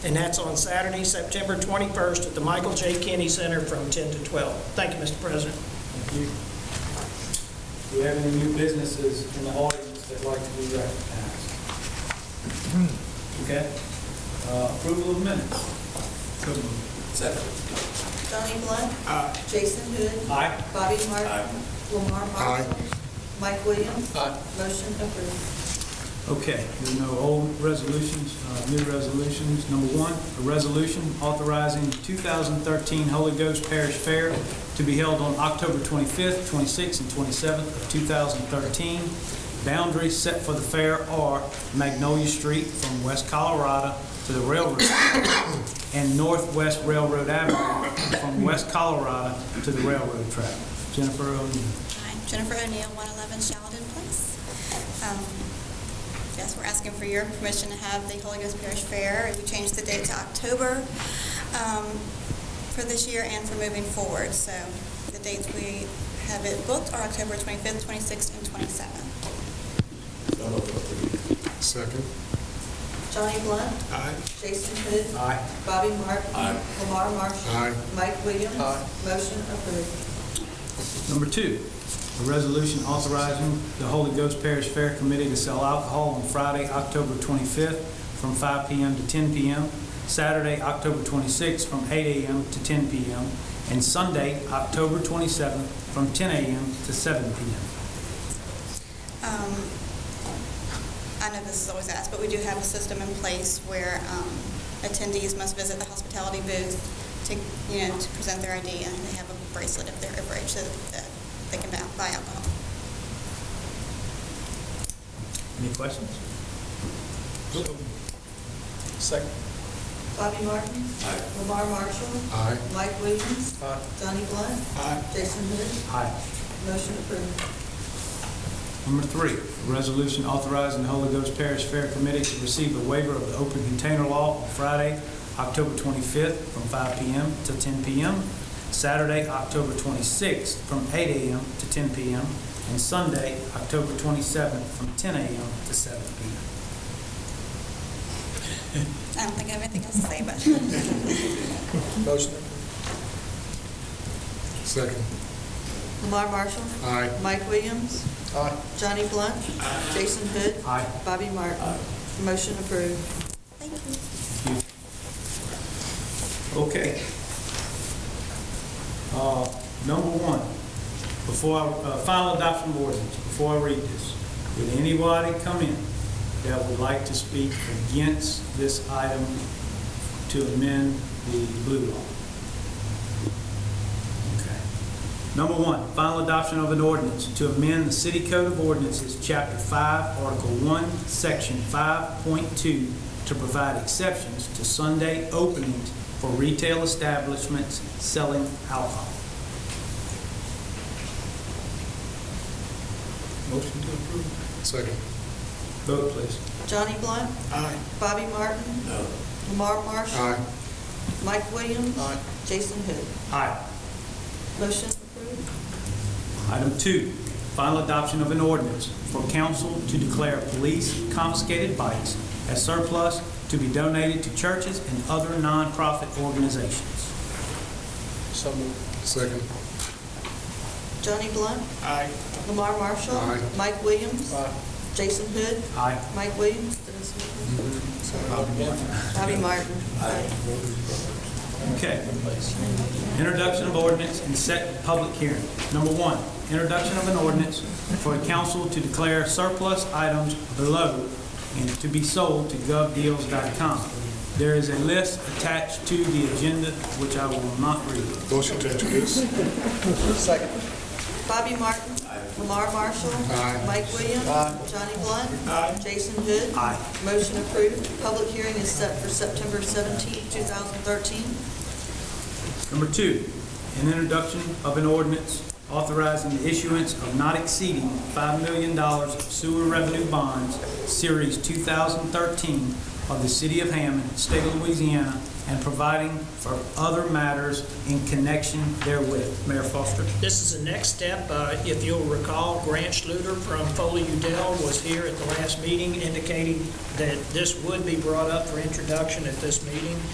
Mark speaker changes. Speaker 1: and that's on Saturday, September 21st at the Michael J. Kenny Center from 10 to 12. Thank you, Mr. President.
Speaker 2: Thank you. Do we have any new businesses in the audience that'd like to be recognized? Okay. Uh, Approval of minutes.
Speaker 3: Second.
Speaker 4: Donnie Blunt. Jason Hood.
Speaker 2: Aye.
Speaker 4: Bobby Martin. Lamar
Speaker 5: Aye.
Speaker 4: Marshall. Mike Williams.
Speaker 3: Aye.
Speaker 4: Motion approved.
Speaker 2: Okay, there are no old resolutions, uh, new resolutions. Number one, a resolution authorizing 2013 Holy Ghost Parish Fair to be held on October 25th, 26th, and 27th of 2013. Boundaries set for the fair are Magnolia Street from West Colorado to the railroad track and Northwest Railroad Avenue from West Colorado to the railroad track. Jennifer O'Neill.
Speaker 6: Hi, Jennifer O'Neill, 111 Sheldon Place. Um, Yes, we're asking for your permission to have the Holy Ghost Parish Fair. We changed the date to October um, for this year and for moving forward. So the dates we have it booked are October 25th, 26th, and 27th.
Speaker 5: Second.
Speaker 4: Donnie Blunt.
Speaker 5: Aye.
Speaker 4: Jason Hood.
Speaker 2: Aye.
Speaker 4: Bobby Martin.
Speaker 3: Aye.
Speaker 4: Lamar Marshall.
Speaker 5: Aye.
Speaker 4: Mike Williams.
Speaker 3: Aye.
Speaker 4: Motion approved.
Speaker 2: Number two, a resolution authorizing the Holy Ghost Parish Fair Committee to sell alcohol on Friday, October 25th, from 5 p.m. to 10 p.m., Saturday, October 26th, from 8 a.m. to 10 p.m., and Sunday, October 27th, from 10 a.m. to 7 p.m.
Speaker 6: Um, I know this is always asked, but we do have a system in place where um, attendees must visit the hospitality booth to, you know, to present their ID, and they have a bracelet if they're overage so that they can buy buy alcohol.
Speaker 2: Any questions?
Speaker 3: Second.
Speaker 4: Bobby Martin.
Speaker 3: Aye.
Speaker 4: Lamar Marshall.
Speaker 5: Aye.
Speaker 4: Mike Williams.
Speaker 3: Aye.
Speaker 4: Donnie Blunt.
Speaker 3: Aye.
Speaker 4: Jason Hood.
Speaker 2: Aye.
Speaker 4: Motion approved.
Speaker 2: Number three, a resolution authorizing the Holy Ghost Parish Fair Committee to receive a waiver of the open container law on Friday, October 25th, from 5 p.m. to 10 p.m., Saturday, October 26th, from 8 a.m. to 10 p.m., and Sunday, October 27th, from 10 a.m. to 7 p.m.
Speaker 6: I don't think I have anything else to say, but
Speaker 3: Motion.
Speaker 5: Second.
Speaker 4: Lamar Marshall.
Speaker 5: Aye.
Speaker 4: Mike Williams.
Speaker 3: Aye.
Speaker 4: Johnny Blunt. Jason Hood.
Speaker 2: Aye.
Speaker 4: Bobby Martin. Motion approved.
Speaker 6: thank you.
Speaker 2: Okay. Uh, Number one, before, I uh, final adoption of ordinance, before I read this, would anybody come in that would like to speak against this item to amend the blue law? Okay. Number one, final adoption of an ordinance to amend the City Code of Ordinances, Chapter 5, Article 1, Section 5.2, to provide exceptions to Sunday openings for retail establishments selling alcohol. Motion to approve.
Speaker 5: Second.
Speaker 2: Vote, please.
Speaker 4: Johnny Blunt.
Speaker 5: Aye.
Speaker 4: Bobby Martin.
Speaker 3: No.
Speaker 4: Lamar Marshall.
Speaker 5: Aye.
Speaker 4: Mike Williams.
Speaker 3: Aye.
Speaker 4: Jason Hood.
Speaker 2: Aye.
Speaker 4: Motion approved.
Speaker 2: Item two, final adoption of an ordinance for council to declare police confiscated bikes as surplus to be donated to churches and other nonprofit organizations.
Speaker 3: So moved.
Speaker 5: Second.
Speaker 4: Johnny Blunt.
Speaker 3: Aye.
Speaker 4: Lamar Marshall.
Speaker 5: Aye.
Speaker 4: Mike Williams.
Speaker 3: Aye.
Speaker 4: Jason Hood.
Speaker 2: Aye.
Speaker 4: Mike Williams. Did I say
Speaker 5: Mm-hmm.
Speaker 4: that? Sorry. Bobby Martin. Aye.
Speaker 2: Okay. Introduction of ordinance and set public hearing. Number one, introduction of an ordinance for a council to declare surplus items below and to be sold to govdeals.com. There is a list attached to the agenda, which I will not read.
Speaker 5: Motion to introduce.
Speaker 3: Second.
Speaker 4: Bobby Martin. Lamar Marshall.
Speaker 5: Aye.
Speaker 4: Mike Williams. Johnny Blunt. Jason Hood.
Speaker 2: Aye.
Speaker 4: Motion approved. Public hearing is set for September 17, 2013.
Speaker 2: Number two, an introduction of an ordinance authorizing the issuance of not exceeding $5 million of sewer revenue bonds, Series 2013, of the City of Hammond, State of Louisiana, and providing for other matters in connection therewith. Mayor Foster.
Speaker 1: This is the next step. Uh, If you'll recall, Grant Schluter from Foley Udell was here at the last meeting indicating that this would be brought up for introduction at this meeting.